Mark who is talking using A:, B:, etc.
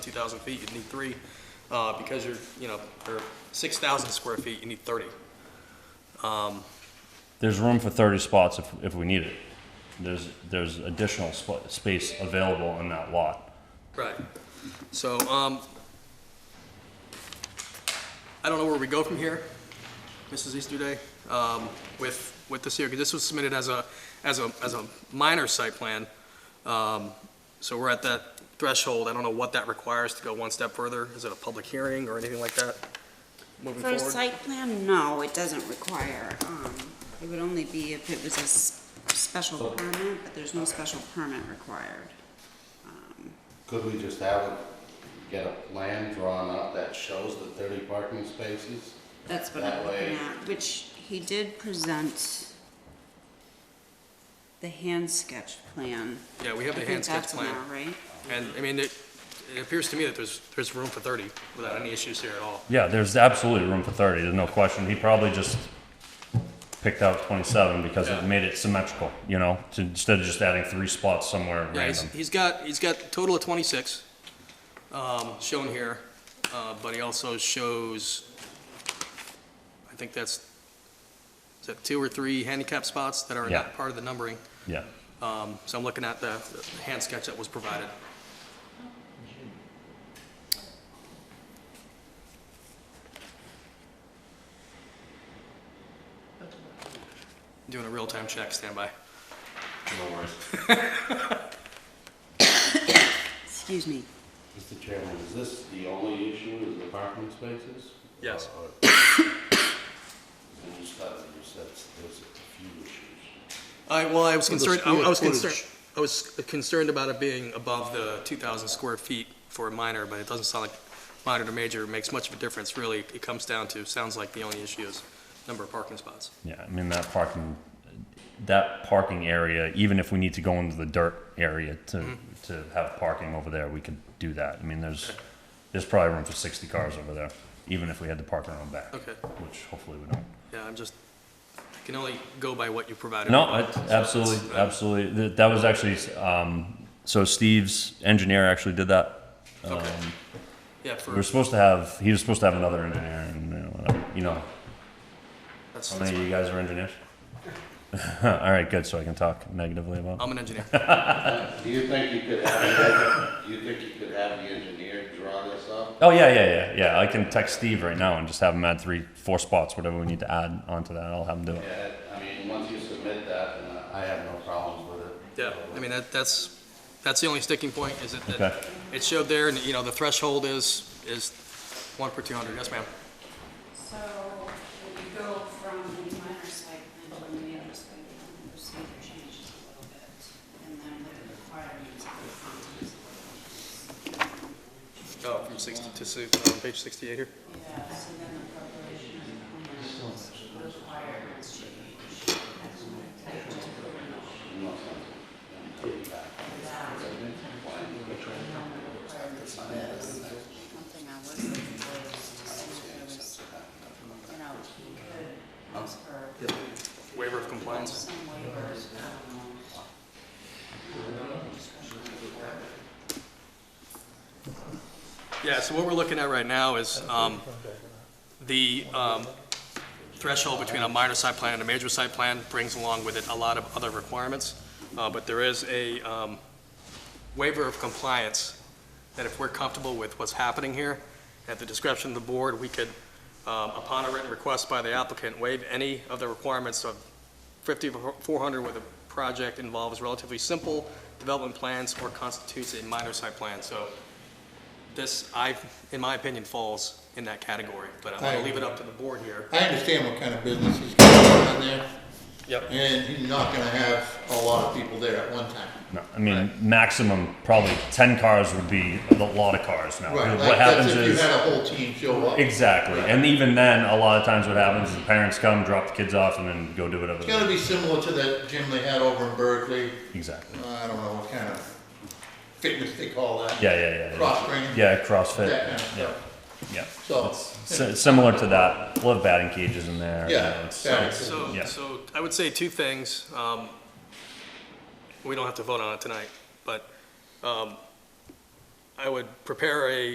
A: 2,000 feet, you'd need three. Uh, Because you're, you know, or 6,000 square feet, you need 30.
B: There's room for 30 spots if, if we need it. There's, there's additional sp- space available on that lot.
A: Right. So, um, I don't know where we go from here, Mrs. Easterday, um, with, with this here, because this was submitted as a, as a, as a minor site plan. Um, so we're at that threshold. I don't know what that requires to go one step further. Is it a public hearing or anything like that? Moving
C: For a
A: forward?
C: site plan, no, it doesn't require, um, it would only be if it was a s- special permit, but there's no special permit required.
D: Could we just have, a- get a plan drawn up that shows the thirty parking spaces?
C: That's what
D: That
C: I'm looking
D: way-
C: at, which he did present the hand sketch plan.
A: Yeah, we have the
C: I
A: hand
C: think
A: sketch
C: that's
A: plan.
C: now, right?
A: And, I mean, it, it appears to me that there's, there's room for thirty without any issues here at all.
B: Yeah, there's absolutely room for 30, there's no question. He probably just picked out 27 because
A: Yeah.
B: it made it symmetrical, you know, to, instead of just adding three spots somewhere
A: Yeah, he's,
B: random.
A: he's got, he's got a total of twenty-six, um, shown here, uh, but he also shows, I think that's, is that two or three handicap spots that are
B: Yeah.
A: not part of the numbering?
B: Yeah.
A: Um, so I'm looking at the, the hand sketch that was provided. Doing a real-time check, standby.
D: No worries.
C: Excuse me,
D: Mr. Chairman, is this the only issue, is the parking spaces?
A: Yes.
D: Or- or- And you said, you said there's a few issues.
A: I, well, I was
E: Well, the
A: concerned, I I was
E: square
A: concerned,
E: footage.
A: I was concerned about it being above the 2,000 square feet for a minor, but it doesn't sound like minor to major makes much of a difference, really. It comes down to, sounds like the only issue is number of parking spots.
B: Yeah, I mean, that parking, that parking area, even if we need to go into the dirt area to, to have parking over there, we could do that. I mean, there's, there's probably room for 60 cars over there, even if we had to park around back.
A: Okay.
B: Which hopefully we don't.
A: Yeah, I'm just, I can only go by what you provided.
B: No, it's absolutely, absolutely. Th- That was actually, um, so Steve's engineer actually did that.
A: Okay.
B: Um,
A: Yeah,
B: We were
A: for,
B: supposed to have, he was supposed to have another engineer and, you know, whatever, you know.
A: that's,
B: How many of you guys are engineers? All right, good, so I can talk negatively about.
A: I'm an engineer.
D: Do you think you could have, do you think you could have the engineer draw this up?
B: Oh yeah, yeah, yeah, yeah. I can text Steve right now and just have him add three, four spots, whatever we need to add onto that. I'll have him do it.
D: Yeah, I mean, once you submit that, then I I have no problems with it.
A: Yeah, I mean, that, that's, that's the only sticking point, is that, that
B: Okay.
A: it showed there, and, you know, the threshold is, is one per 200. Yes, ma'am.
C: so we go from the minor site plan to the major site plan, procedure changes a little bit, and then with the requirements of the contents
A: Oh, from 60 to, si- uh, page 68 here.
C: Yeah, so then the preparation of the plans, requirements change. One thing I was looking for is to see if there was, you know, you could ask for
A: Waiver of compliance.
C: some waivers, um, I don't know.
A: Yeah, so what we're looking at right now is um, the um, threshold between a minor site plan and a major site plan brings along with it a lot of other requirements, Uh, but there is a um, waiver of compliance that if we're comfortable with what's happening here, at the discretion of the board, we could, um, upon a written request by the applicant, waive any of the requirements of 5400 where the project involves relatively simple development plans or constitutes a minor site plan. So this, I, in my opinion, falls in that category, but I'm gonna leave it up to the board here.
E: I understand what kind of business he's got on there,
A: Yep.
E: and he's not gonna have a lot of people there at one time.
B: No, I mean, maximum probably ten cars would be a lot of cars now.
E: Right,
B: what
E: like, that's
B: happens
E: if you
B: is
E: had a whole team show up. It's
B: exactly, and even then, a lot of times what happens is the parents come, drop the kids off, and then go do whatever. They
E: gotta be similar to that gym they had over in Berkeley, Uh,
B: Exactly.
E: I don't know what kind of fitness they call that.
B: Yeah, yeah, yeah.
E: Cross training.
B: Yeah, CrossFit.
E: That kind of
B: yeah,
E: stuff.
B: yeah.
E: So-
B: It's si- similar to that. We'll have batting cages in there. you
E: Yeah,
B: know, it's-
E: batting
B: it's-
E: cages.
A: So,
B: Yeah.
A: so I would say two things. Um, We don't have to vote on it tonight, but um, I would prepare a